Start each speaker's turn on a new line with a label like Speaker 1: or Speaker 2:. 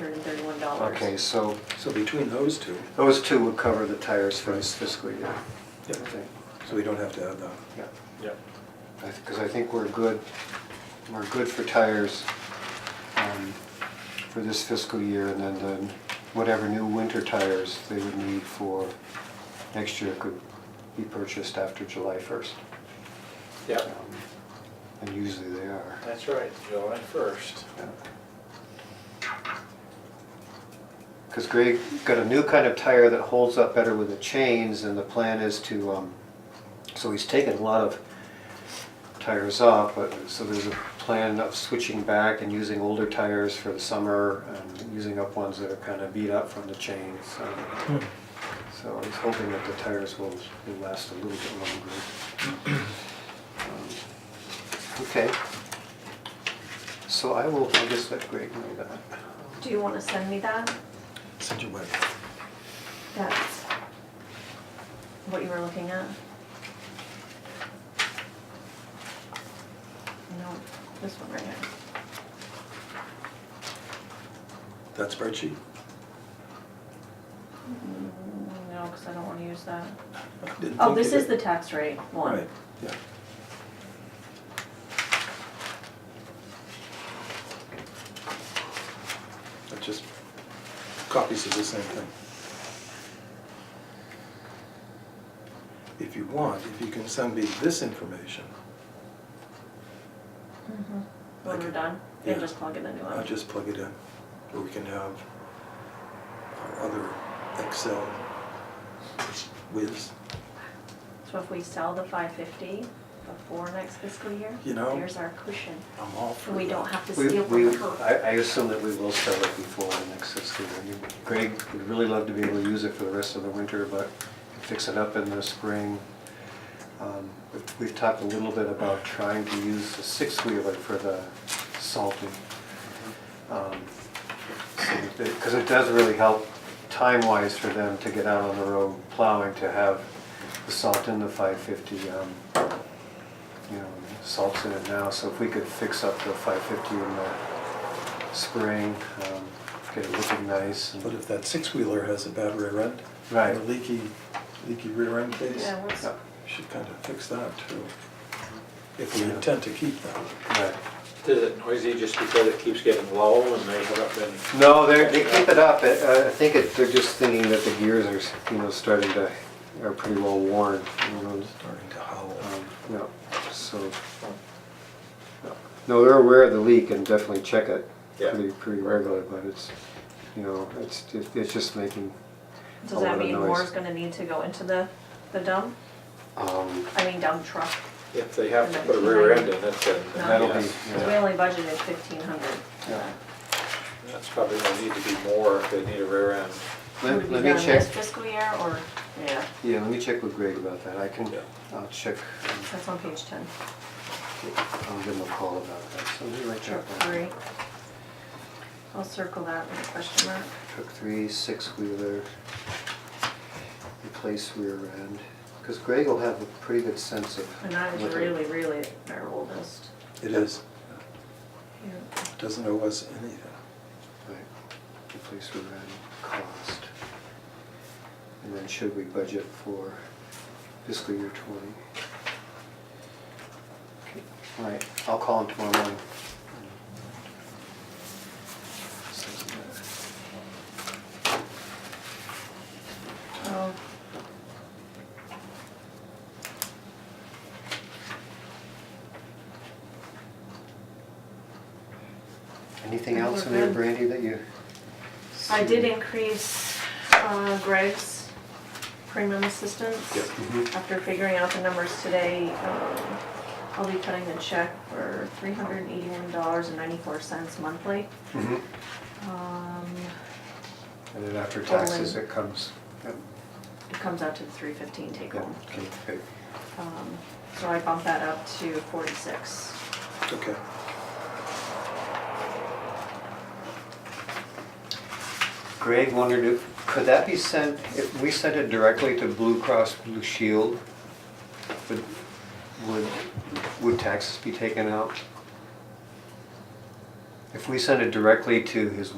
Speaker 1: $431.
Speaker 2: Okay, so
Speaker 3: So between those two,
Speaker 2: those two would cover the tires for this fiscal year.
Speaker 3: Yep.
Speaker 2: Okay,
Speaker 3: so we don't have to add that.
Speaker 2: Yeah,
Speaker 4: Yep.
Speaker 2: because I think we're good, we're good for tires um, for this fiscal year, and then the- whatever new winter tires they would need for next year could be purchased after July 1st.
Speaker 4: Yep,
Speaker 2: And usually they are.
Speaker 4: that's right, July first.
Speaker 2: Because Greg got a new kind of tire that holds up better with the chains, and the plan is to, um, so he's taken a lot of tires off, but, so there's a plan of switching back and using older tires for the summer, and using up ones that are kind of beat up from the chains. um, So he's hoping that the tires will, will last a little bit longer. Um, Okay. So I will, I guess let Greg know that.
Speaker 1: Do you want to send me that?
Speaker 3: Send you what?
Speaker 1: That's what you were looking at? No, this one right here.
Speaker 3: That spreadsheet?
Speaker 1: Mm, No, because I don't want to use that.
Speaker 3: Didn't
Speaker 1: Oh,
Speaker 3: think
Speaker 1: this
Speaker 3: you
Speaker 1: is the
Speaker 3: did.
Speaker 1: tax rate one.
Speaker 3: Right, yeah. That's just copies of the same thing. If you want, if you can send me this information,
Speaker 1: Mhm. When
Speaker 3: Okay.
Speaker 1: we're done, then
Speaker 3: Yeah.
Speaker 1: just plug in the new
Speaker 3: I'll
Speaker 1: one.
Speaker 3: just plug it in. Or we can have our other Excel whiz.
Speaker 1: So if we sell the five fifty before next fiscal year,
Speaker 3: You know-
Speaker 1: there's our cushion.
Speaker 3: I'm all for
Speaker 1: And we
Speaker 3: that.
Speaker 1: don't have to
Speaker 2: We,
Speaker 1: steal
Speaker 2: we,
Speaker 1: from her.
Speaker 2: I, I assume that we will sell it before the next fiscal year. You- Greg would really love to be able to use it for the rest of the winter, but fix it up in the spring. Um, we've- We've talked a little bit about trying to use the six-wheeler for the salting. Um, Because it does really help time-wise for them to get out on the road plowing, to have the salt in the five fifty. um, You know, salt's in it now, so if we could fix up the five fifty in the spring, um, get it looking nice. and-
Speaker 3: But if that six-wheeler has a bad rear end,
Speaker 2: Right.
Speaker 3: and a leaky, leaky rear end case,
Speaker 1: Yeah,
Speaker 3: we
Speaker 1: what's,
Speaker 2: Yeah,
Speaker 3: should kind of fix that too. If we
Speaker 2: Yeah.
Speaker 3: intend to keep that.
Speaker 2: right.
Speaker 4: Is it noisy just because it keeps getting low and they have up and
Speaker 2: No, they they keep it up. It- uh, I think it, they're just thinking that the gears are, you know, starting to, are pretty well worn. you know,
Speaker 3: Starting to howl.
Speaker 2: um, No, so. no. No, they're aware of the leak and definitely check it
Speaker 4: Yeah.
Speaker 2: pretty, pretty regular, but it's, you know, it's, it's just making a
Speaker 1: does
Speaker 2: lot
Speaker 1: that
Speaker 2: of
Speaker 1: mean more is
Speaker 2: noise.
Speaker 1: gonna need to go into the, the dump?
Speaker 2: Um,
Speaker 1: I mean dump truck?
Speaker 4: if they have to put a rear end in it, then
Speaker 1: No.
Speaker 2: That'll be,
Speaker 4: yes,
Speaker 1: Because we
Speaker 2: yeah,
Speaker 1: only budgeted fifteen hundred.
Speaker 2: yeah.
Speaker 4: that's probably gonna need to be more if they need a rear end.
Speaker 1: Would
Speaker 2: Let
Speaker 1: it be
Speaker 2: let
Speaker 1: done
Speaker 2: me check,
Speaker 1: this fiscal year or, yeah,
Speaker 2: yeah, let me check with Greg about that. I can,
Speaker 4: Yeah.
Speaker 2: I'll check, um,
Speaker 1: that's on page ten.
Speaker 2: I'll give him a call about that. So let me write
Speaker 1: Truck
Speaker 2: that down.
Speaker 1: three. I'll circle that with a question mark.
Speaker 2: Truck three, six-wheeler, replace rear end. Because Greg will have a pretty good sense of.
Speaker 1: And that
Speaker 2: what
Speaker 1: is
Speaker 2: the-
Speaker 1: really, really our oldest.
Speaker 3: It is,
Speaker 1: Yeah.
Speaker 3: doesn't owe us anything.
Speaker 2: Right, replace rear end cost. And then should we budget for fiscal year twenty? Okay, All right, I'll call him tomorrow morning.
Speaker 1: Oh,
Speaker 2: Anything
Speaker 1: I think
Speaker 2: else in
Speaker 1: we're
Speaker 2: there,
Speaker 1: good.
Speaker 2: Brandy, that you?
Speaker 1: I did
Speaker 2: see?
Speaker 1: increase uh, Greg's premium assistance.
Speaker 3: Yep.
Speaker 2: Mm-hmm.
Speaker 1: After figuring out the numbers today, um, I'll be cutting the check for three hundred and eighty-one dollars and ninety-four cents monthly.
Speaker 2: Mhm.
Speaker 1: Um,
Speaker 2: And then after
Speaker 1: Total
Speaker 2: taxes,
Speaker 1: in.
Speaker 2: it comes. Yep.
Speaker 1: It comes out to the three fifteen take
Speaker 2: Yep,
Speaker 1: home.
Speaker 2: okay, great.
Speaker 1: Um, So I bumped that up to forty-six.
Speaker 3: Okay,
Speaker 2: Greg wondered if, could that be sent, if we sent it directly to Blue Cross Blue Shield, would, would, would taxes be taken out? If we sent it directly to his